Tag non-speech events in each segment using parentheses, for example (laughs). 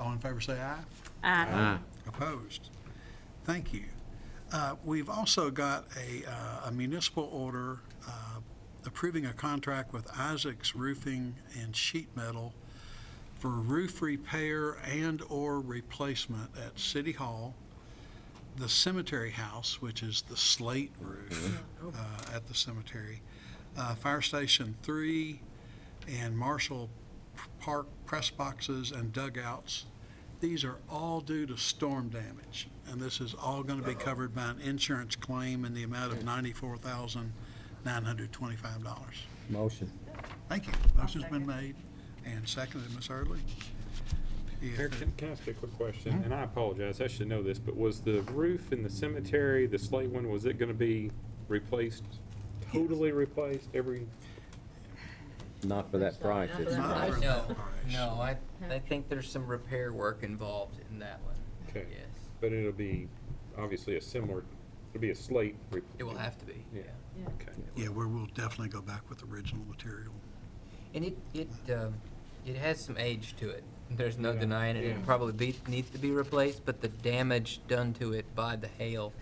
All in favor say aye. Uh, Aye. Ah. Opposed? Thank you. Uh, We've also got a uh, a municipal order uh, approving a contract with Isaac's Roofing and Sheet Metal for roof repair and/or replacement at City Hall, the cemetery house, which is the slate Mm-hmm. roof uh, at the cemetery, uh, Fire Station 3, and Marshall Park press boxes and dugouts these are all due to storm damage, and this is all going to be covered by an insurance claim in the amount Mm-hmm. of ninety-four thousand, nine hundred twenty-five dollars. Motion. Thank you. Motion's been made and seconded, Ms. Hurley. If Eric, can, can I ask you a quick question? And I apologize, I should know this, but was the roof in the cemetery, the slate one, was it gonna be replaced, totally replaced every? Not for that price. Not for it's that not. price. No, Nice. no, I, I think there's some repair work involved in that one. Okay. Yes, But it'll be obviously a similar, it'll be a slate. re- it will have to be, yeah. Yeah. Okay. Yeah, we will definitely go back with original material. And it, it, um, it has some age to it. There's no Yeah. denying it. Yeah. It probably be, needs to be replaced, but the damage done to it by the hail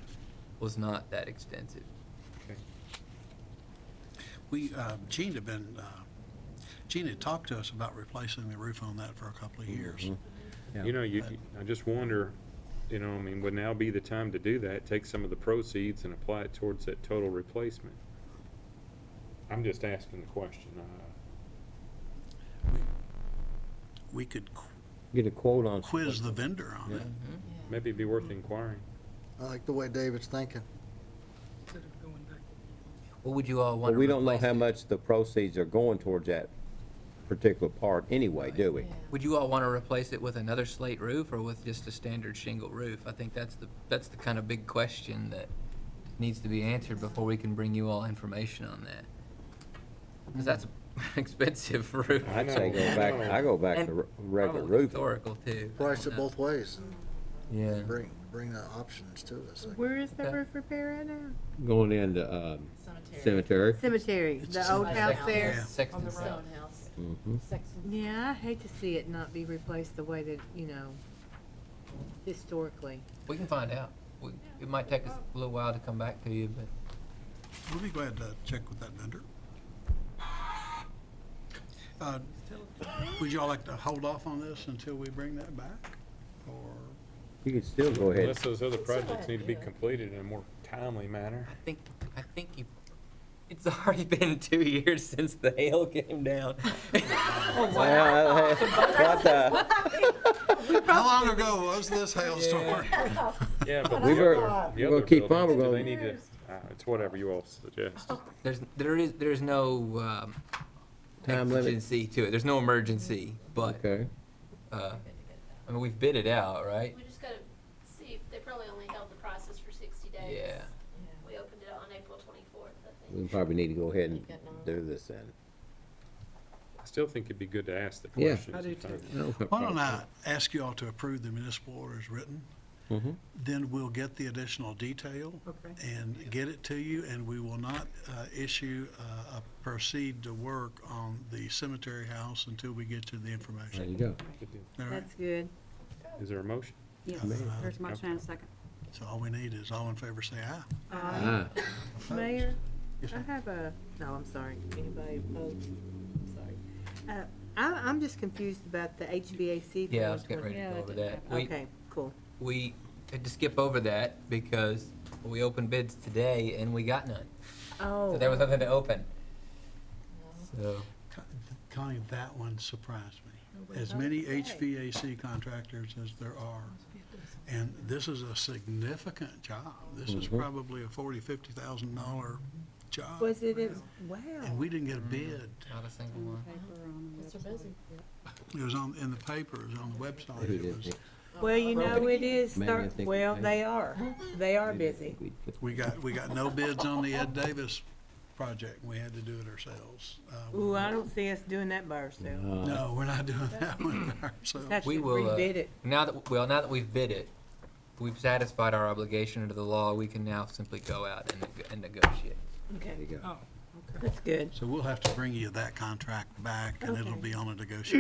was not that extensive. Okay. We, uh, Gene had been, uh, Gene had talked to us about replacing the roof on that for a couple of years. Yeah. You know, you, you- I just wonder, you know, I mean, would now be the time to do that? Take some of the proceeds and apply it towards that total replacement? I'm just asking the question. uh, We could qu- Get a quote on. quiz the vendor on it. Maybe it'd be worth Mm-hmm. inquiring. I like the way David's thinking. What would you all want Well, to we don't know replace how it? much the proceeds are going towards that particular part anyway, do we? Would you all want to replace it with another slate roof or with just a standard shingle roof? I think that's the, that's the kind of big question that needs to be answered before we can bring you all information on that. Because that's (laughs) an expensive roof. I I'd say know, go I back, know. I go back to And re- regular Probably roofing. Historical too. I Price don't it know. both ways and Yeah. bring, bring the options to us. Where is the Okay. roof repair at now? Going into, um, cemetery. Cemetery. Cemetery, the old house Sexton- there. Yeah. On Sexton the South. Stone House. Mhm. Sexton. Yeah, I hate to see it not be replaced the way that, you know, historically. We can find out. We- It might take us a little while to come back to you, but We'll be glad to check with that vendor. Uh, Would y'all like to hold off on this until we bring that back? Or, You could still go ahead. Unless those other projects need to be idea. completed in a more timely manner. I think, I think you, it's already (laughs) been two years since the hail came (laughs) down. Well, hey, (laughs) what the- how long ago was this hailstorm? Yeah, but We the were- other- the we're gonna other keep on, we're buildings, do gonna- They need to, uh, it's whatever you all suggest. There's, there is, there is no, um, Time limit. emergency to it. There's no emergency, but, Okay, uh, I mean, we've bid it out, right? We just gotta see, if they probably only held the process for sixty days. Yeah. We opened it on April twenty-fourth, I think. we probably need to go ahead and do this then. I still think it'd be good to ask the Yeah. question. I do too. Why don't I ask y'all to approve the municipal order as written? Mm-hmm. Then we'll get the additional detail Okay. and get it to you, and we will not uh, issue uh, a proceed to work on the cemetery house until we get to the There you information. go. All right? Uh, That's good. Is there a motion? Yes, there's a motion and a second. So all we need is all in favor say aye. Ah, Mayor, Yes, I have a, no, I'm sorry, anybody opposed? I'm sorry. Uh, I, I'm just confused about the HVAC. Yeah, I for was getting ready to go over that. We, Okay, cool. we had to skip over that because we opened bids today and we got none. So Oh. there was nothing to open. So, Con- Connie, that one surprised Oh, me. As many HVAC contractors as there are, and this is a significant job. This Mm-hmm. is probably a forty, fifty thousand dollar job. Oh, Was it, in- And wow. we didn't get a bid. not a single one. Paper on the Mr. website. Busy. It was on, in the paper, it was on the website. Who It did was, it? Well, you know, it is, Maybe I start- think we well, paid. they are, they are busy. we got, we got no bids on the Ed Davis project. We had to do it ourselves. Uh, Ooh, I don't see us doing that by ourselves. No, we're not doing that one That's ourselves. We should will, uh, rebid it. Now that, well, now that we've bid it, we've satisfied our obligation under the law, we can now simply go out and, neg- and negotiate. Oh, Okay, There you go. that's good. So we'll have to bring you that contract back, and it'll Okay. be on a negotiation.